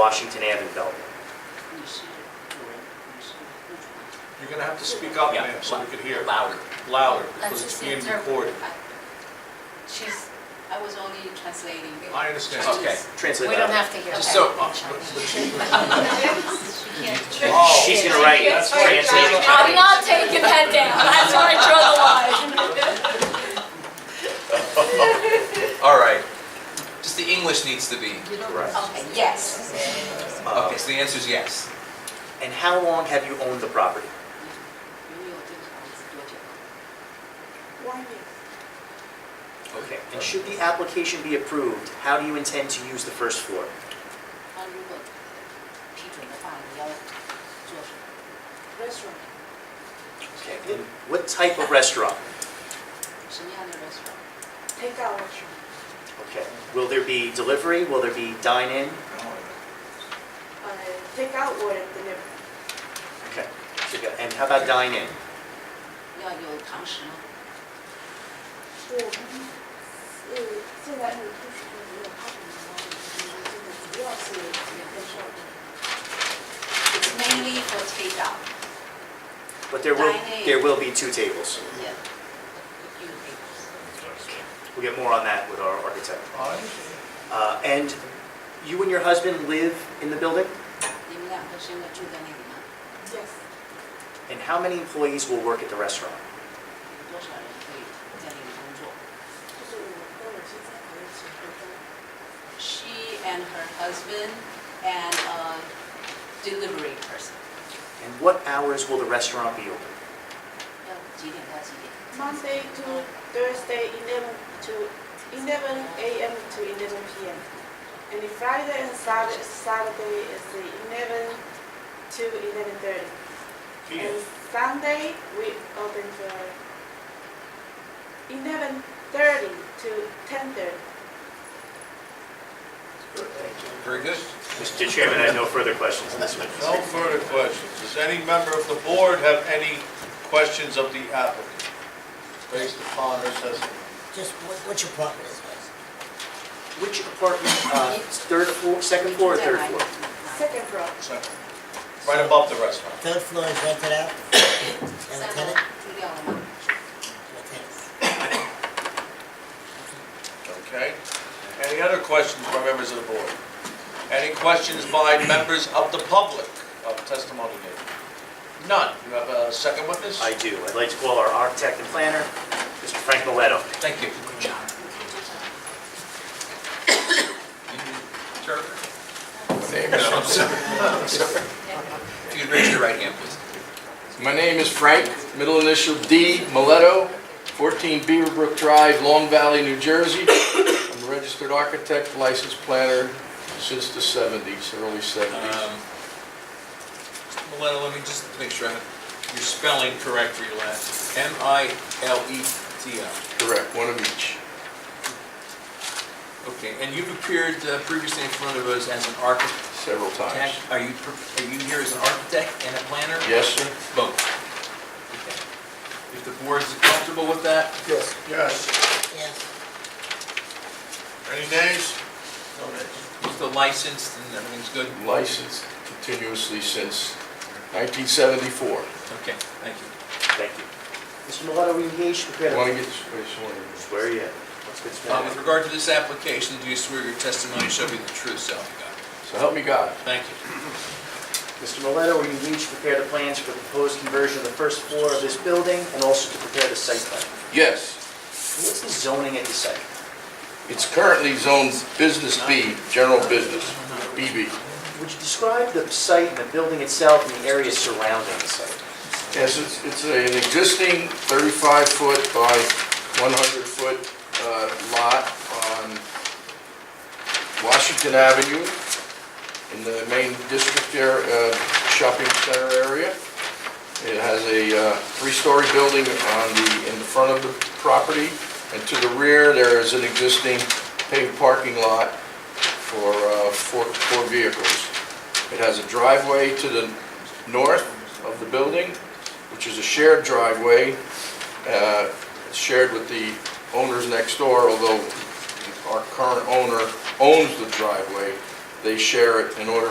Washington Avenue Belt. You're gonna have to speak up, Yeah, ma'am, so we lou- can hear Louder. louder, That's because just it's the being interpret. recorded. She's, I was only translating. it. I understand. She's- Okay. Translate We don't that. have to hear that. Just so, Uh, but- but she- She can't. Oh. She's gonna write, translate. I'm not taking that down, that's where I draw the line. all right. Just the English needs to be correct. Okay, yes. Uh, Okay, so the answer is yes. And how long have you owned the property? Okay. And should the application be approved, how do you intend to use the first floor? 他如果批准的话，你要做什么？Restaurant Okay. And what type of restaurant? 什么样的 restaurant？ Takeout Okay. Will there be delivery? Will there be dine-in? uh, takeout or delivery? Okay. So go- And how about dine-in? 要有堂食吗？我们呃，现在是就是说没有他什么了，就是这个主要是两个事儿。 It's mainly for takeout. But there will, Dine-in. there will be two tables. Yeah. You We'll get more on that with our architect. I understand. Uh, And you and your husband live in the building? 你们两个现在住在那里吗？多少人可以？ Yes, And how many employees will work at the restaurant? 在那里工作？就是我跟我先生还有几个都 She and her husband and a delivery person. And what hours will the restaurant be open? 要几点到几点？ Monday to Thursday, eleven to eleven a.m. to eleven p.m. And the Friday and Saturday, Saturday is the eleven to eleven thirty. And Sunday, we open for eleven thirty to ten thirty. Very good. Mr. Chairman, I have no further questions on this No witness. further questions. Does any member of the board have any questions of the applicant based upon her testimony? Just what, what's your property address? Which apartment, uh, third floor, second floor or third floor? Second row. Second. Right above the restaurant. Third floor is rented out? You have a tenant? 三楼住掉了吗？ You have a tenant. Okay. Any other questions by members of the board? Any questions by members of the public of testimony given? None. You have a second witness? I do. I'd like to call our architect and planner, Mr. Frank Mileto. Thank you. Good job. 你可以介绍。 I'm sorry. If you could raise your right hand, please. My name is Frank, middle initial D, Mileto, 14 Beaverbrook Drive, Long Valley, New Jersey. I'm a registered architect, licensed planner since the 70s, early 70s. Um, Milena, let me just make sure I have your spelling correct for your last. E M-I-L-E-T-O. Correct, one of each. Okay, and you've appeared uh, previously in front of us as an architect. Several times. Are you, pre- are you here as an architect and a planner? Yes, sir. Both. Okay. If the board is comfortable with that? Yes. Yes. Yes. Any nays? No nays. You're still licensed and everything's good? Licensed continuously since 1974. Okay, thank you. Thank you. Mr. Mileto, were you engaged? Want to get, wait, Swear are you? in. Let's get Uh, started. With regard to this application, do you swear your testimony shall be the truth, so help you God? so help me God. Thank you. Mr. Mileto, were you engaged to prepare the plans for the proposed conversion of the first floor of this building and also to prepare the site plan? Yes, What's the zoning at the site? it's currently zoned Business B, General Business, BB. Would you describe the site and the building itself and the areas surrounding the site? Yes, it's, it's a- an existing 35-foot by 100-foot lot on Washington Avenue in the main district there, uh, shopping center area. It has a uh, three-story building on the, in the front of the property, and to the rear, there is an existing paved parking lot for uh, four, four vehicles. It has a driveway to the north of the building, which is a shared driveway, uh, shared with the owners next door, although our current owner owns the driveway. they share it in order